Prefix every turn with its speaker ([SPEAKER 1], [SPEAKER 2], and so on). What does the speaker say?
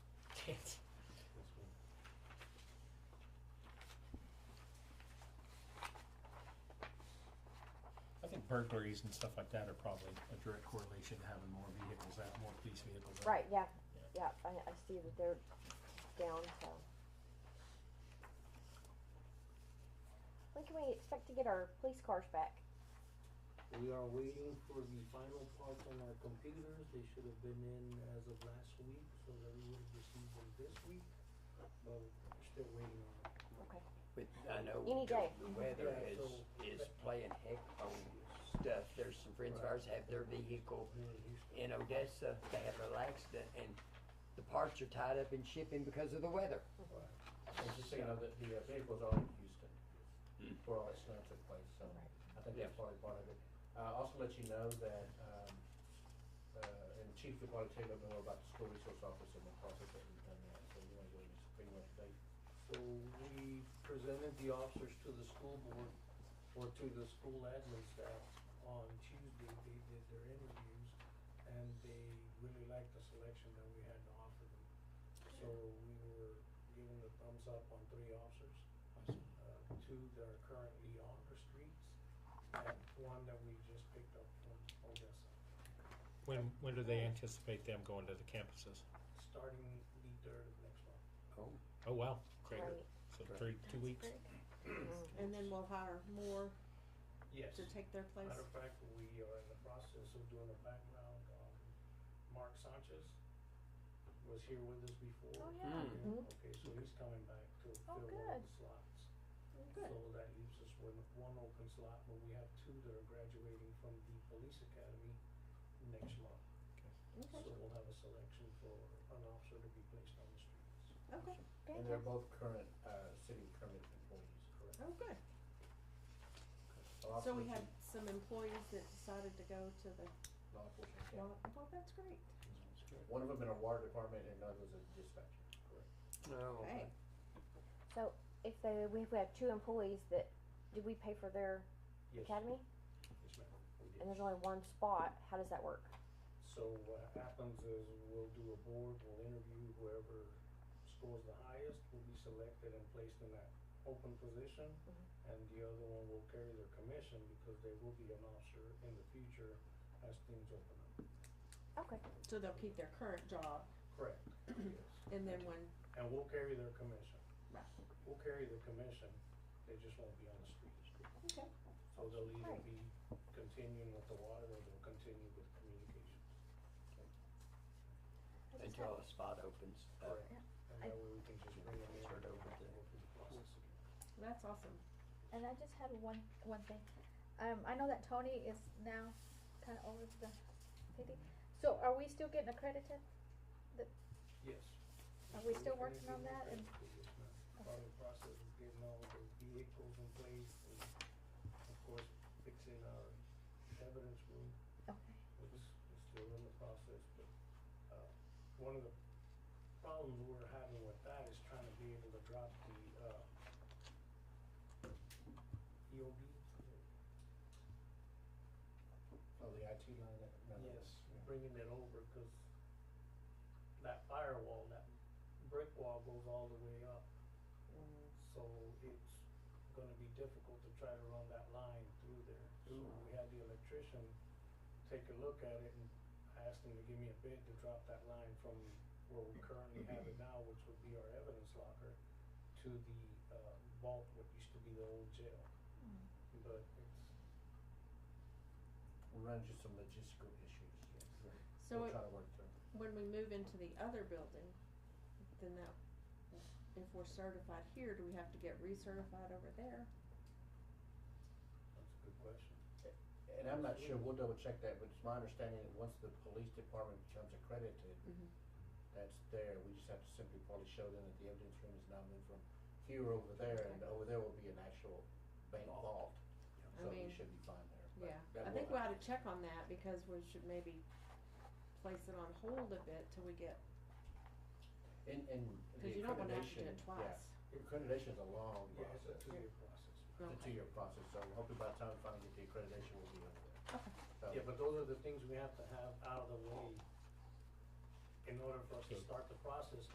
[SPEAKER 1] burglaries and stuff like that are probably a direct correlation to having more vehicles out, more police vehicles out.
[SPEAKER 2] Right, yeah, yeah, I, I see that they're down, so. When can we expect to get our police cars back?
[SPEAKER 3] We are waiting for the final part on our computers, they should have been in as of last week, so that we would have received them this week, but we're still waiting on it.
[SPEAKER 2] Okay,
[SPEAKER 4] But I know the-
[SPEAKER 2] Any day.
[SPEAKER 4] the weather
[SPEAKER 3] Yeah,
[SPEAKER 4] is,
[SPEAKER 3] so-
[SPEAKER 4] is playing heck on stuff. There's some friends of ours have their vehicle in Odessa, they have a little accident and the parts are tied up in shipping because of the weather.
[SPEAKER 5] I was just thinking of the, the uh, vehicles are in Houston, where all that snow took place, so I think that's probably part of it. Uh, also let you know that, um, uh, and Chief would probably tell you a little bit more about the school resource office and the process that we've done now, so you wanna go into pretty much date.
[SPEAKER 3] So we presented the officers to the school board, or to the school admin staff on Tuesday, they did their interviews, and they really liked the selection that we had to offer them. So we were given the thumbs up on three officers, uh, two that are currently on the streets, and one that we just picked up from Odessa.
[SPEAKER 1] When, when do they anticipate them going to the campuses?
[SPEAKER 3] starting the third of next month.
[SPEAKER 4] Oh,
[SPEAKER 1] Oh, wow, great,
[SPEAKER 2] great,
[SPEAKER 1] so three, two weeks?
[SPEAKER 6] And then we'll hire more
[SPEAKER 3] Yes.
[SPEAKER 6] to take their place.
[SPEAKER 3] Matter of fact, we are in the process of doing a background on Mark Sanchez. Was here with us before.
[SPEAKER 2] Oh, yeah. Mhm.
[SPEAKER 3] Okay, so he's coming back to
[SPEAKER 2] Oh,
[SPEAKER 3] fill all
[SPEAKER 2] good.
[SPEAKER 3] the slots.
[SPEAKER 2] good.
[SPEAKER 3] So that leaves us with one open slot, but we have two that are graduating from the police academy next month.
[SPEAKER 2] Okay.
[SPEAKER 3] So we'll have a selection for an officer to be placed on the streets.
[SPEAKER 6] Okay,
[SPEAKER 5] And they're both current, uh, city permanent employees, correct?
[SPEAKER 6] oh, good.
[SPEAKER 5] Law
[SPEAKER 6] So we had
[SPEAKER 5] enforcement-
[SPEAKER 6] some employees that decided to go to the,
[SPEAKER 5] Law enforcement, yeah.
[SPEAKER 6] well, well, that's great.
[SPEAKER 5] One of them in our water department and another's a dispatcher, correct? Oh,
[SPEAKER 4] no.
[SPEAKER 6] Hey,
[SPEAKER 2] So if they, we have two employees that, did we pay for their
[SPEAKER 3] Yes,
[SPEAKER 2] academy?
[SPEAKER 3] yes, ma'am, we did.
[SPEAKER 2] And there's only one spot, how does that work?
[SPEAKER 3] So what happens is we'll do a board, we'll interview whoever scores the highest will be selected and placed in that open position.
[SPEAKER 2] Mm-hmm.
[SPEAKER 3] And the other one will carry their commission because they will be an officer in the future as things open up.
[SPEAKER 2] Okay,
[SPEAKER 6] so they'll keep their current job
[SPEAKER 3] Correct. Yes.
[SPEAKER 6] and then when,
[SPEAKER 3] And we'll carry their commission.
[SPEAKER 6] Right.
[SPEAKER 3] We'll carry the commission, they just won't be on the streets.
[SPEAKER 6] okay,
[SPEAKER 3] So they'll either
[SPEAKER 2] Right.
[SPEAKER 3] be continuing with the water or they'll continue with communications.
[SPEAKER 4] Until a spot opens
[SPEAKER 5] Oh,
[SPEAKER 4] up.
[SPEAKER 3] Correct. And
[SPEAKER 2] I-
[SPEAKER 3] that way we can just bring them in
[SPEAKER 4] Start
[SPEAKER 3] and
[SPEAKER 4] over
[SPEAKER 3] we'll
[SPEAKER 4] then.
[SPEAKER 3] go through the process again.
[SPEAKER 6] that's awesome.
[SPEAKER 7] And I just had one one thing. Um, I know that Tony is now kind of over to the city. So are we still getting accredited?
[SPEAKER 3] Yes.
[SPEAKER 7] Are we still working on that and-
[SPEAKER 3] Part of the process is getting all the vehicles in place and of course fixing our evidence room,
[SPEAKER 7] Okay.
[SPEAKER 3] which is still in the process, but, uh, one of the problems we're having with that is trying to be able to drop the, uh, E EOB.
[SPEAKER 5] Oh, the IT line, that, no, that was- yeah.
[SPEAKER 3] Bringing it over, cause that firewall, that brick wall goes all the way up. So it's gonna be difficult to try to run that line through there. So
[SPEAKER 4] Ooh.
[SPEAKER 3] we had the electrician take a look at it and I asked him to give me a bid to drop that line from where we currently have it now, which would be our evidence locker, to the uh, vault, what used to be the old jail. But it's,
[SPEAKER 5] We run into some logistical issues, yes.
[SPEAKER 6] So
[SPEAKER 5] We'll
[SPEAKER 6] it-
[SPEAKER 5] try to work through it.
[SPEAKER 6] when we move into the other building, then that, if we're certified here, do we have to get recertified over there?
[SPEAKER 3] that's a good question.
[SPEAKER 5] And I'm not sure, we'll double check that, but it's my understanding that once the police department becomes accredited,
[SPEAKER 6] Mhm.
[SPEAKER 5] that's there, we just have to simply probably show them that the evidence room is now moved from here over there, and over there will be an actual bank vault.
[SPEAKER 6] I
[SPEAKER 5] So we
[SPEAKER 6] mean,
[SPEAKER 5] should be fine there. but
[SPEAKER 6] Yeah,
[SPEAKER 5] that
[SPEAKER 6] I
[SPEAKER 5] will
[SPEAKER 6] think we
[SPEAKER 5] have-
[SPEAKER 6] ought to check on that because we should maybe place it on hold a bit till we get,
[SPEAKER 5] And, and the
[SPEAKER 6] cause you don't wanna have to do
[SPEAKER 5] accreditation,
[SPEAKER 6] it
[SPEAKER 5] yeah,
[SPEAKER 6] twice.
[SPEAKER 5] accreditation is a long
[SPEAKER 3] Yeah, it's a
[SPEAKER 5] process,
[SPEAKER 3] two-year process.
[SPEAKER 5] it's a
[SPEAKER 6] Okay.
[SPEAKER 5] two-year process, so hopefully by the time we finally get the accreditation, we'll be over there.
[SPEAKER 6] Okay.
[SPEAKER 5] So,
[SPEAKER 3] Yeah, but those are the things we have to have out of the way in order for us to
[SPEAKER 1] Good.
[SPEAKER 3] start the process